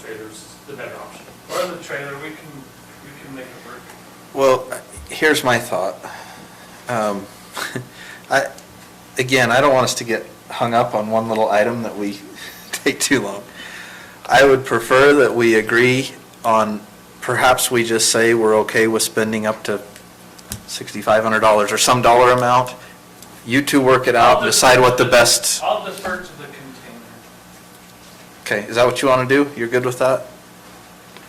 trailer's the better option. Or the trailer, we can, we can make it work. Well, here's my thought. Um, I, again, I don't want us to get hung up on one little item that we take too long. I would prefer that we agree on, perhaps we just say we're okay with spending up to $6,500 or some dollar amount. You two work it out, I'll and decide what the defer to best, I'll defer to the container. okay, is that what you want to do? You're good with that?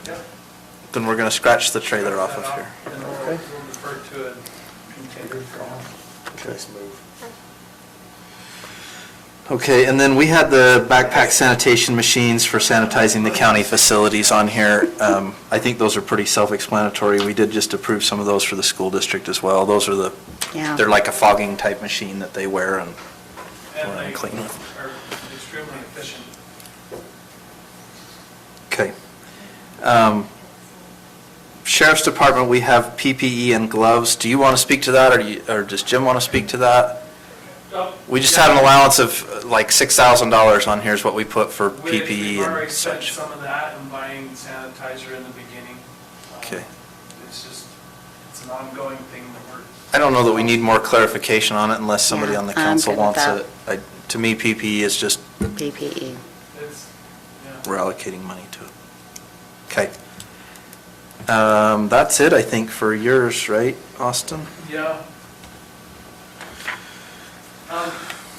Yep. Then we're going to scratch the trailer off of Cut here. that off, And we'll, Okay. we'll defer to a container for now. Let's move. Okay, and then we had the backpack sanitation machines for sanitizing the county facilities on here. Um, I think those are pretty self-explanatory. We did just approve some of those for the school district as well. Those are the, Yeah. they're like a fogging type machine that they wear and And Wanna they clean it. are extremely efficient. Okay. Um, Sheriff's Department, we have PPE and gloves. Do you want to speak to that, or do you- or does Jim want to speak to that? Oh, We just yeah. had an allowance of uh, like $6,000 on here is what we put for We- We've PPE already and spent such. some of that in buying sanitizer in the beginning. Um, Okay. It's just, it's an ongoing thing that we're. I don't know that we need more clarification on it unless somebody Yeah, on the I'm good council with wants that. it. I- To me, PPE is just, PPE. It's, yeah. we're allocating money to it. Okay. Um, That's it, I think, for yours, right, Austin? Yeah. Um,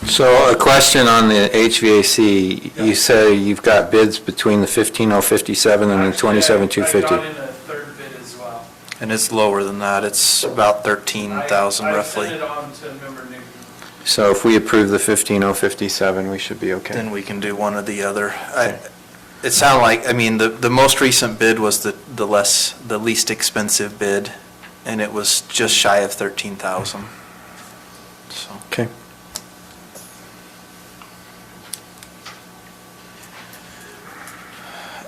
So a question on the HVAC, you say you've got bids between the 15057 and the actually, I- I got 27250. in a third bid as well. And it's lower than that, it's about I- 13,000 I sent roughly. it on to member Newton. So if we approve the 15057, we should be Then okay. we can do one or the other. I- It sounded like, I mean, the, the most recent bid was the, the less, the least expensive bid, and it was just shy of 13,000. So. Okay.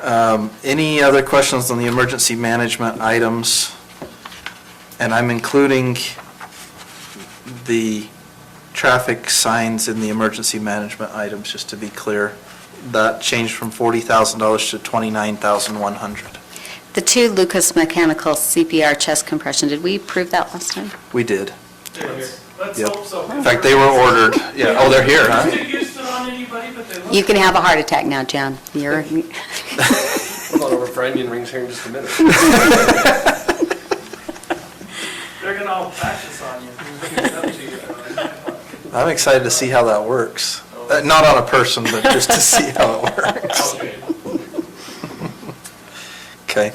Um, Any other questions on the emergency management items? And I'm including the traffic signs in the emergency management items, just to be clear. That changed from $40,000 to $29,100. The two Lucas Mechanical CPR chest compression, did we approve that last time? We did. They're here. Let's Yep. hope so. In fact, they were ordered, yeah, oh, they're here, huh? Mr. Houston on anybody, but they look. You can have a heart attack now, John. You're, We'll go over for onion rings here in just a minute. They're gonna all patch us on you. It's up to you. I'm excited to see how that works. Uh, Not on a person, but just to see how it works. Okay. Okay.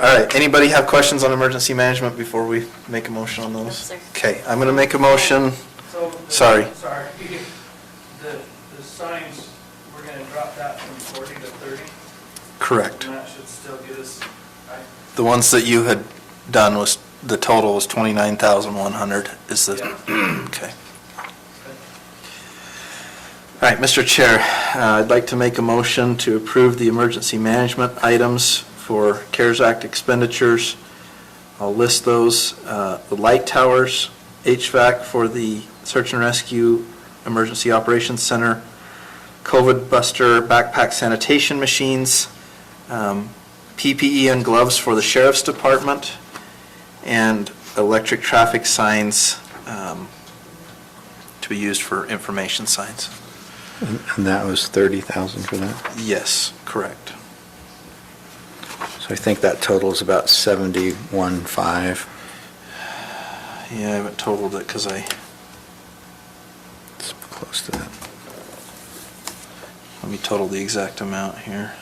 All right, anybody have questions on emergency management before we make a motion on those? sir. Okay, I'm going to make a motion, So the- Sorry. Sorry. The, the signs, we're gonna drop that from forty to thirty, correct. and that should still get us, I, The ones that you had done was, the total was 29,100 is the, okay. All right, Mr. Chair, uh, I'd like to make a motion to approve the emergency management items for CARES Act expenditures. I'll list those, uh, the light towers, HVAC for the search and rescue emergency operations center, COVID buster backpack sanitation machines, um, PPE and gloves for the sheriff's department, and electric traffic signs um, to be used for information signs. And and that was 30,000 for that? Yes, correct. So I think that totals about 71.5. Yeah, I haven't totaled it because I, It's close to that. let me total the exact amount here.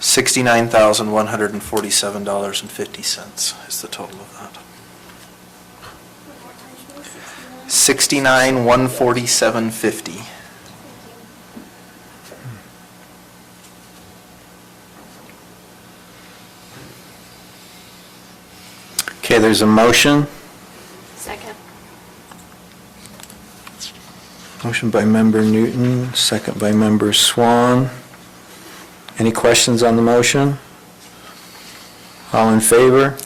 Sixty-nine thousand, one hundred and forty-seven dollars and fifty cents is the total of that. Sixty-nine, one forty-seven, fifty. Okay, there's a motion. Second. Motion by member Newton, second by member Swan. Any questions on the motion? All in favor?